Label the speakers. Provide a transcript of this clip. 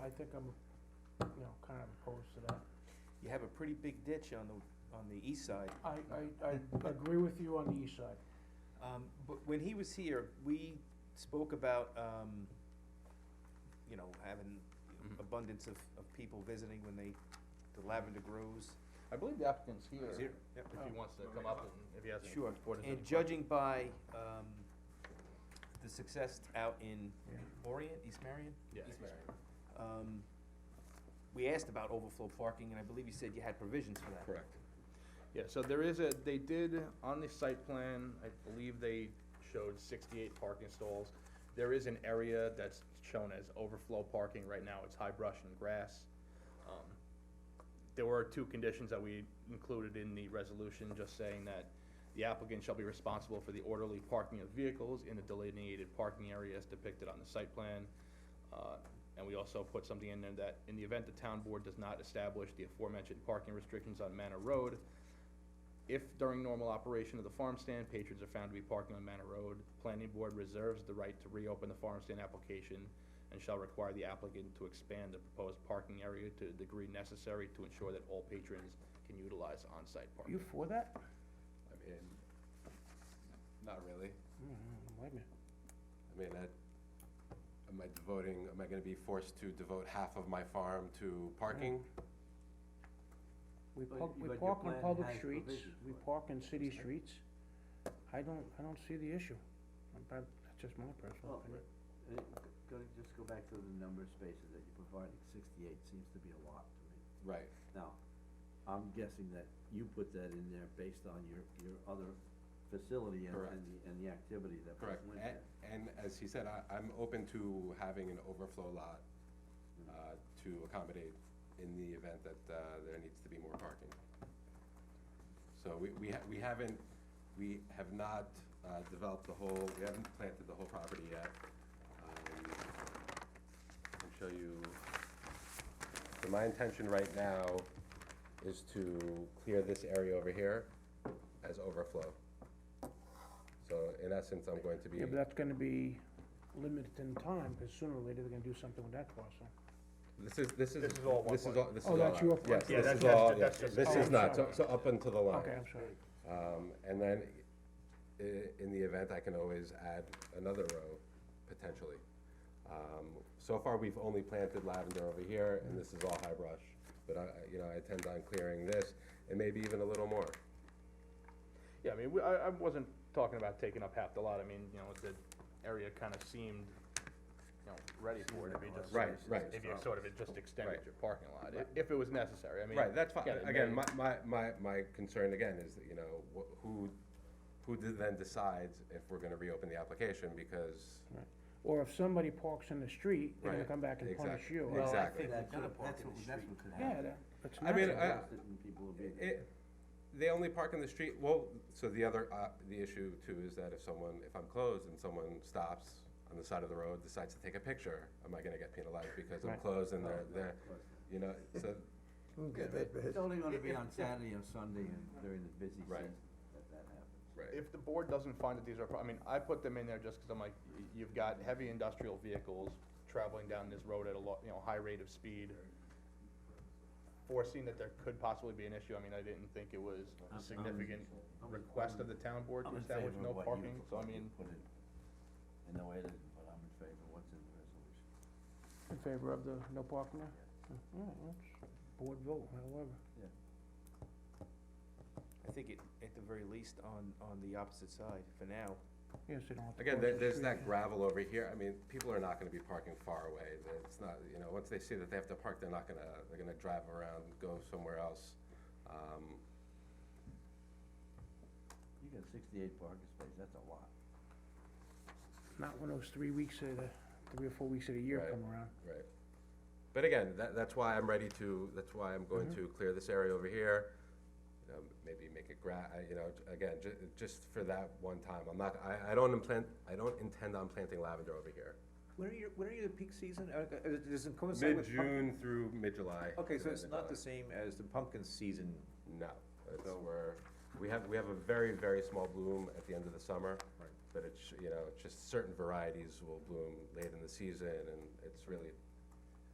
Speaker 1: think I'm, you know, kind of opposed to that.
Speaker 2: You have a pretty big ditch on the, on the east side.
Speaker 1: I, I, I agree with you on the east side.
Speaker 2: Um, but when he was here, we spoke about, um, you know, having
Speaker 3: Mm-hmm.
Speaker 2: abundance of, of people visiting when they, the lavender grows.
Speaker 3: I believe the applicant's here, Oh.
Speaker 2: Is
Speaker 3: if
Speaker 2: here? Yep.
Speaker 3: he wants to come up and, if he has any.
Speaker 2: Sure,
Speaker 3: board has
Speaker 2: and
Speaker 3: any
Speaker 2: judging by, um, the success out in
Speaker 1: Yeah.
Speaker 2: Orient, East Marion?
Speaker 3: Yeah,
Speaker 2: East
Speaker 3: East
Speaker 2: Marion. Um, we asked about overflow parking, and I believe you said you had provisions for that.
Speaker 3: Correct. Yeah, so there is a, they did, on the site plan, I believe they showed sixty-eight parking stalls. There is an area that's shown as overflow parking, right now it's high brush and grass. Um, There were two conditions that we included in the resolution, just saying that the applicant shall be responsible for the orderly parking of vehicles in the delineated parking areas depicted on the site plan. Uh, And we also put something in there that, in the event the town board does not establish the aforementioned parking restrictions on Manor Road, if during normal operation of the farm stand, patrons are found to be parking on Manor Road, planning board reserves the right to reopen the farm stand application and shall require the applicant to expand the proposed parking area to the degree necessary to ensure that all patrons can utilize on-site parking.
Speaker 1: for that?
Speaker 4: I mean, not really.
Speaker 1: Mm, Wait a minute.
Speaker 4: I mean, I, am I devoting, am I gonna be forced to devote half of my farm to parking?
Speaker 1: We
Speaker 5: But-
Speaker 1: park, we
Speaker 5: but your
Speaker 1: park on
Speaker 5: plan
Speaker 1: public
Speaker 5: has
Speaker 1: streets,
Speaker 5: provision
Speaker 1: we
Speaker 5: for it.
Speaker 1: park in city streets. I don't, I don't see the issue. I'm prob- That's just my personal
Speaker 5: Well,
Speaker 1: opinion.
Speaker 5: uh, g- go, just go back to the number of spaces that you provided, sixty-eight seems to be a lot to me.
Speaker 4: Right,
Speaker 5: Now, I'm guessing that you put that in there based on your, your other facility and, and
Speaker 4: Correst.
Speaker 5: the, and the activity that was
Speaker 4: correct.
Speaker 5: went
Speaker 4: And,
Speaker 5: there.
Speaker 4: and as he said, I, I'm open to having an overflow lot, uh, to accommodate in the event that, uh, there needs to be more parking. So we, we, ha- we haven't, we have not, uh, developed the whole, we haven't planted the whole property yet. Um, I can show you, so my intention right now is to clear this area over here as overflow. So in essence, I'm going to be.
Speaker 1: Yeah, but that's gonna be limited in time, cause sooner or later they're gonna do something with that parcel.
Speaker 4: This is, this is.
Speaker 3: This is all one
Speaker 4: This is
Speaker 3: plan.
Speaker 4: all, this is
Speaker 1: Oh,
Speaker 4: all
Speaker 1: that's
Speaker 4: out.
Speaker 1: your plan.
Speaker 4: Yes,
Speaker 3: Yeah,
Speaker 4: this
Speaker 3: that's-
Speaker 4: is
Speaker 3: that's
Speaker 4: all,
Speaker 3: ju- that's just-
Speaker 4: this
Speaker 1: Oh,
Speaker 4: is
Speaker 1: I'm
Speaker 4: not, so,
Speaker 1: sorry.
Speaker 4: so up until the line.
Speaker 1: Okay, I'm sorry.
Speaker 4: Um, and then, i- in the event, I can always add another row, potentially. Um, so far, we've only planted lavender over here, and this is all high brush, but I, I- you know, I intend on clearing this, and maybe even a little more.
Speaker 3: Yeah, I mean, we- I, I wasn't talking about taking up half the lot, I mean, you know, the area kind of seemed, you know, ready for it, if you just.
Speaker 4: Right, right.
Speaker 3: If you sort of it just extended
Speaker 4: Right.
Speaker 3: your parking lot, i- if it was necessary, I mean.
Speaker 4: Right, that's fine,
Speaker 3: again, it
Speaker 4: again,
Speaker 3: may-
Speaker 4: my, my, my, my concern again is that, you know, wh- who, who then decides if we're gonna reopen the application, because
Speaker 1: Right. Or if somebody parks in the street, they're gonna
Speaker 4: Right,
Speaker 1: come back and punish
Speaker 4: exactly,
Speaker 1: you.
Speaker 4: Well, exactly.
Speaker 2: Well, I
Speaker 5: That,
Speaker 2: think we
Speaker 5: that,
Speaker 2: could park
Speaker 5: that's
Speaker 2: in
Speaker 5: what,
Speaker 2: the
Speaker 5: that's
Speaker 2: street.
Speaker 5: what could
Speaker 1: Yeah,
Speaker 5: happen.
Speaker 1: that, that's
Speaker 4: I mean,
Speaker 1: natural.
Speaker 4: I-
Speaker 5: Most of the people will be there.
Speaker 4: It, they only park in the street, well, so the other, uh, the issue too is that if someone, if I'm closed and someone stops on the side of the road, decides to take a picture, am I gonna get penalized because I'm
Speaker 1: Right.
Speaker 4: closed and they're,
Speaker 5: Right,
Speaker 4: they're,
Speaker 5: of course.
Speaker 4: you know, so,
Speaker 5: It's only gonna be on Saturday and Sunday and during the busy
Speaker 4: Right.
Speaker 5: season that that happens.
Speaker 4: right,
Speaker 3: If the board doesn't find that these are, pro- I mean, I put them in there just because I'm like, y- you've got heavy industrial vehicles traveling down this road at a lo, you know, high rate of speed. Foreseeing that there could possibly be an issue, I mean, I didn't think it was
Speaker 5: I'm-
Speaker 3: a
Speaker 5: I'm-
Speaker 3: significant
Speaker 5: I'm-
Speaker 3: request of the town board to establish no parking, so I mean,
Speaker 5: I'm in favor of what you put in, and no edit, but I'm in favor of what's in the resolution.
Speaker 1: In favor of the no parking there? All right, that's board vote, however.
Speaker 2: I think it, at the very least, on, on the opposite side for now.
Speaker 1: Yes, they don't have to
Speaker 4: again,
Speaker 1: cross
Speaker 4: there,
Speaker 1: the
Speaker 4: there's
Speaker 1: street.
Speaker 4: that gravel over here, I mean, people are not gonna be parking far away, it's not, you know, once they see that they have to park, they're not gonna, they're gonna drive around, go somewhere else, um,
Speaker 5: You got sixty-eight parking spaces, that's a lot.
Speaker 1: Not when those three weeks of the, three or four weeks of the year
Speaker 4: Right.
Speaker 1: come around.
Speaker 4: Right. But again, that, that's why I'm ready to, that's why I'm going
Speaker 6: Mm-hmm.
Speaker 4: to clear this area over here. You know, maybe make it gra, I- you know, j- again, ju- just for that one time. I'm not, I, I don't implant, I don't intend on planting lavender over here.
Speaker 6: When are your, when are your peak season? Uh, uh, Does it coincide with? pump-
Speaker 4: Mid-June through mid-July.
Speaker 6: Okay,
Speaker 4: is
Speaker 6: so
Speaker 4: when
Speaker 6: it's
Speaker 4: they're
Speaker 6: not the
Speaker 4: done.
Speaker 6: same as the pumpkin season.
Speaker 4: No, it's, we're, we have, we have a very, very small bloom at the end of the summer.
Speaker 6: Right.
Speaker 4: But it's, you know, it's just certain varieties will bloom late in the season, and it's really